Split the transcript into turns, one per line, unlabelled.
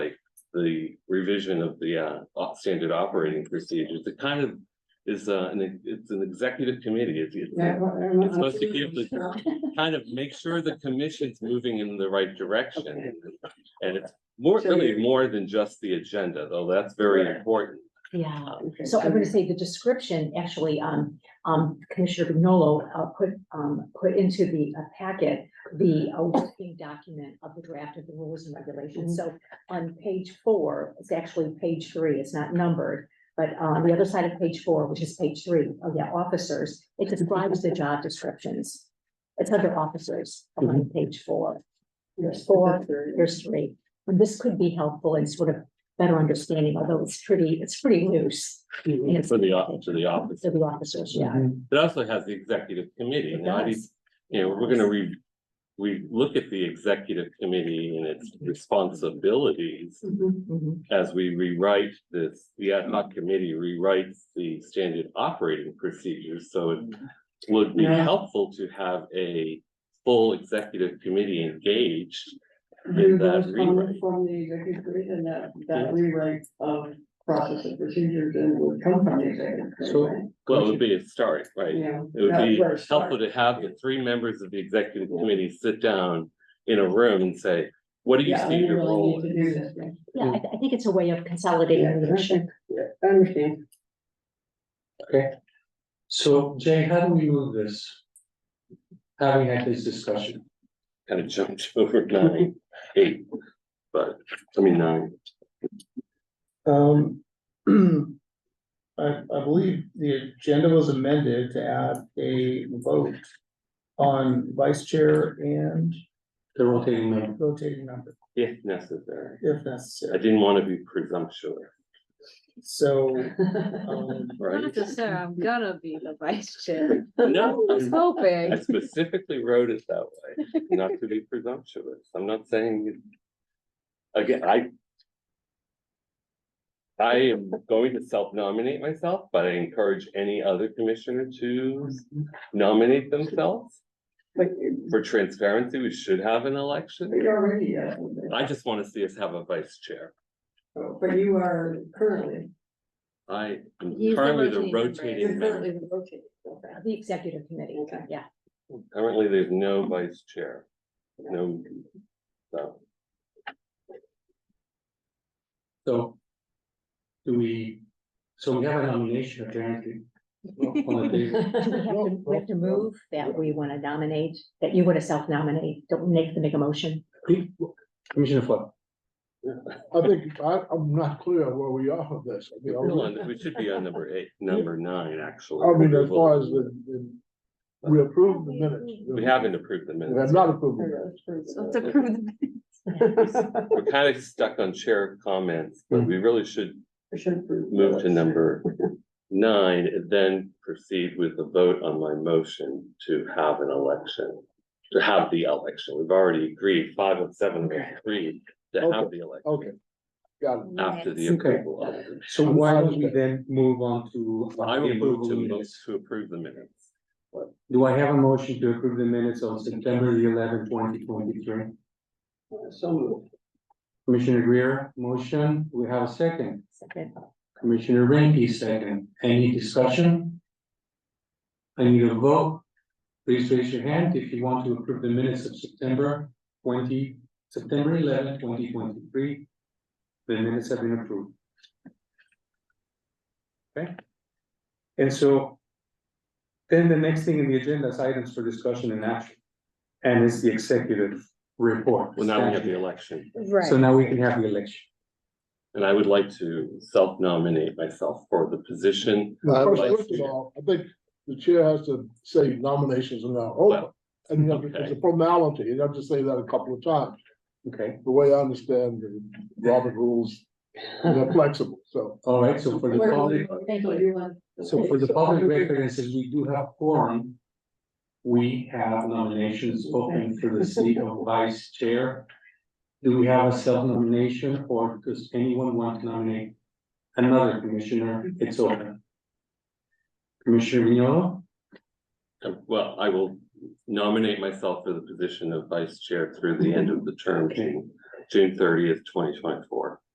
the revision of the uh op- standard operating procedures. It kind of is uh, an, it's an executive committee. It's
Yeah,
it's
well, I don't know.
It's supposed to give the- kind of make sure the commission's moving in the right direction. And it's more,
So
really
you're-
more than just the agenda, though that's very
Right.
important.
Yeah,
Okay,
so I'm gonna say the description, actually, um, um, Commissioner Vignolo, uh, put, um, put into the uh, packet. The uh, working document of the draft of the rules and regulations, so on page four, it's actually page three, it's not numbered. But uh, on the other side of page four, which is page three, oh yeah, officers, it describes the job descriptions. It's under officers on page four,
Yes,
Four.
that's very-
there's three. And this could be helpful in sort of better understanding, although it's pretty, it's pretty loose.
Mhm.
And it's-
For the office, to the office.
To the officers, yeah.
It also has the executive committee.
It
Now, I
does.
you know, we're gonna re, we look at the executive committee and its responsibilities
Mhm.
Mhm.
as we rewrite this, the ad hoc committee rewrites the standard operating procedures, so it would be
Yeah.
helpful to have a full executive committee engaged.
Do
in that
those
rewrite.
come from the executive committee and that, that rewrite of process and procedures and would come from the executive. committee,
So-
right?
Well, it would be a start, right?
Yeah.
It would
That's
be
where it
helpful
starts.
to have the three members of the executive committee sit down in a room and say, what do you
Yeah,
see
we
your
really
role?
need to
is?"
do this, right?
Yeah, I, I think it's a way of
Yeah,
consolidating leadership.
okay. Yeah, I understand.
So Jay, how do we move this? Having had this discussion,
kind of jumped over nine, eight, but, I mean, nine.
Um. I, I believe the agenda was amended to add a vote on vice chair and
the rotating member,
rotating member,
if necessary.
if
I
necessary.
didn't want to be presumptuous,
So, um,
right?
Not to say I'm gonna be the vice chair.
No,
I was
I'm- I
hoping.
specifically wrote it that way, not to be presumptuous. I'm not saying. it- Again, I. I am going to self-nominate myself, but I encourage any other commissioner to nominate themselves.
But
For transparency, we should have an election.
we already, uh,
I just want to see us have a vice chair.
but you are currently.
I am
He's the
currently the
rotating member.
rotating member.
the rotating, okay.
The executive committee,
Okay.
yeah.
Currently, there's no vice chair. No. So,
so. Do we, so we have a nomination apparently. on the
uh,
table.
Do We have to, we have to move that we want to nominate, that you want to self-nominate, don't make the make a motion.
Commissioner Foyle,
I think, I, I'm not clear where we are with this. I mean, are
Hold
we-
on, we should be on number eight, number nine, actually.
I mean, as
approval.
far as the, the- we approved the minutes.
We haven't approved the
We have
minutes.
not approved the minutes.
So
That's
to prove the-
We're kind of stuck on chair comments, but
Hmm.
we really should move to number nine and then proceed with the vote on my motion to have an election. To have the election. We've already agreed, five of seven have agreed to have the election
Okay. Got it.
after the
Yes. Okay.
approval of the
so why don't we then move on to? uh,
I will
the approval
move
of
to mo-
minutes?
to approve the minutes.
Do I have a motion to approve the minutes on September the eleventh, twenty twenty-three?
So moved.
Commissioner Greer, motion, we have a second.
Second.
Commissioner Randy, second. Any discussion? I need a vote. Please raise your hand if you want to approve the minutes of September twenty, September 11, 2023. The minutes have been approved. Okay? And so then the next thing in the agenda is items for discussion and action. And it's the executive report.
Well, now we have the election,
Right.
So now we can have the election.
and I would like to self-nominate myself for the position.
First
like-
first of all, I think the chair has to say nominations are now open.
Well,
And you have to- it's a formality. You have to say that a couple of times.
Okay,
The way I understand the Robert rules, they're flexible, so.
all right, so for the public,
Thank
So
you.
you want.
so for the public record, and since we do have quorum. We have nominations open for the seat of vice chair. Do we have a self-nomination or does anyone want to nominate another commissioner? It's open. Commissioner Vignolo,
uh, Well, I will nominate myself for the position of vice chair through the end of the term, June, June thirtieth, twenty twenty-four.